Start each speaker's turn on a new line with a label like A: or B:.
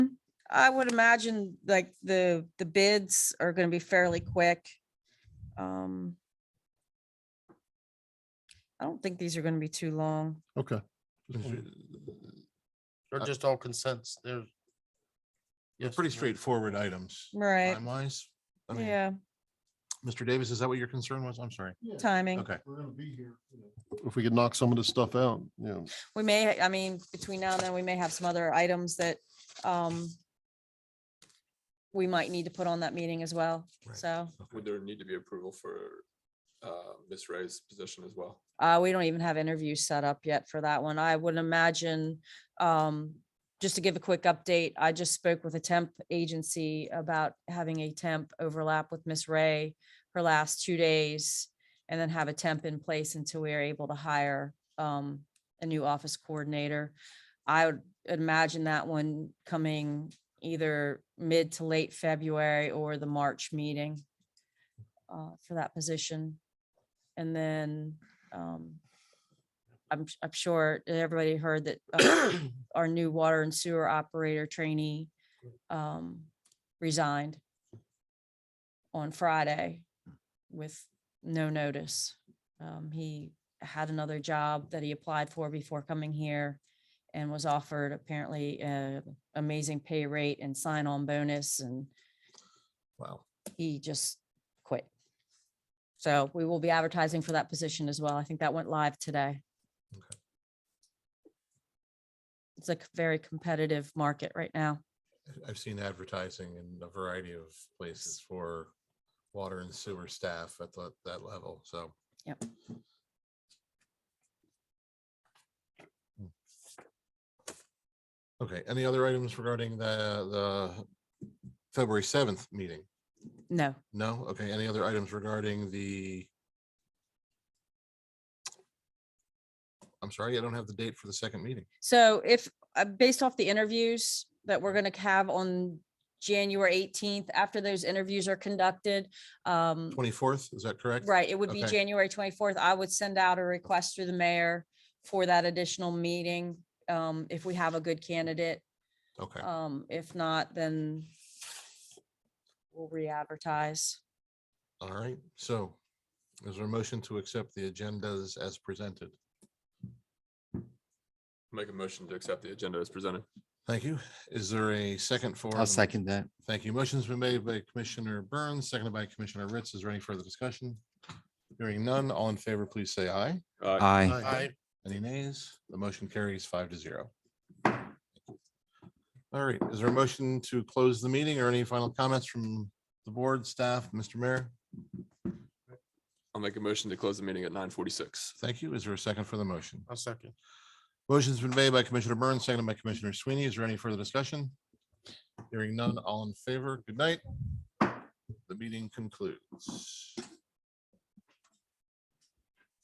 A: I would imagine like the, the bids are gonna be fairly quick. Um I don't think these are gonna be too long.
B: Okay.
C: They're
B: Uh,
C: just all consents. They're.
B: They're
C: Yes,
B: pretty
C: no.
B: straightforward items.
A: Right,
B: Time-wise, I mean,
A: yeah,
B: Mr. Davis, is that what your concern was? I'm sorry.
A: timing.
B: Okay.
D: We're gonna be here.
E: if we could knock some of this stuff out, you know,
A: We may, I mean, between now and then, we may have some other items that um we might need to put on that meeting as well,
B: Right.
A: so.
F: Would there need to be approval for uh, Ms. Ray's position as well?
A: Uh, we don't even have interviews set up yet for that one. I would imagine, um, just to give a quick update, I just spoke with a temp agency about having a temp overlap with Miss Ray her last two days and then have a temp in place until we are able to hire, um, a new office coordinator. I would imagine that one coming either mid to late February or the March meeting uh, for that position. And then um, I'm, s- I'm sure that everybody heard that uh, our new water and sewer operator trainee um, resigned on Friday with no notice. Um, He had another job that he applied for before coming here and was offered apparently an amazing pay rate and sign-on bonus and
B: Wow.
A: he just quit. So we will be advertising for that position as well. I think that went live today.
B: Okay.
A: It's a c- very competitive market right now.
B: I- I've seen advertising in a variety of places for water and sewer staff at that, that level, so.
A: Yep.
B: Hmm. Okay, any other items regarding the, the February seventh meeting?
A: No,
B: No? Okay, any other items regarding the? I'm sorry, I don't have the date for the second meeting.
A: so if, uh, based off the interviews that we're gonna have on January eighteenth, after those interviews are conducted, um,
B: Twenty-fourth, is that correct?
A: Right, it would be
B: Okay.
A: January twenty-fourth. I would send out a request through the mayor for that additional meeting, um, if we have a good candidate.
B: Okay,
A: Um, if not, then we'll re-advertise.
B: all right, so is there a motion to accept the agendas as presented?
F: Make a motion to accept the agenda as presented.
B: Thank you. Is there a second for?
E: I'll
B: the-
E: second that.
B: Thank you. Motion's been made by Commissioner Burns, seconded by Commissioner Ritz. Is there any further discussion? Hearing none, all in favor, please say aye.
F: Uh,
E: Aye.
C: I,
B: Any nays? The motion carries five to zero. All right, is there a motion to close the meeting or any final comments from the board, staff, Mr. Mayor?
F: I'll make a motion to close the meeting at nine forty-six.
B: Thank you. Is there a second for the motion?
C: a second.
B: Motion's been made by Commissioner Burns, seconded by Commissioner Sweeney. Is there any further discussion? Hearing none, all in favor, good night. The meeting concludes.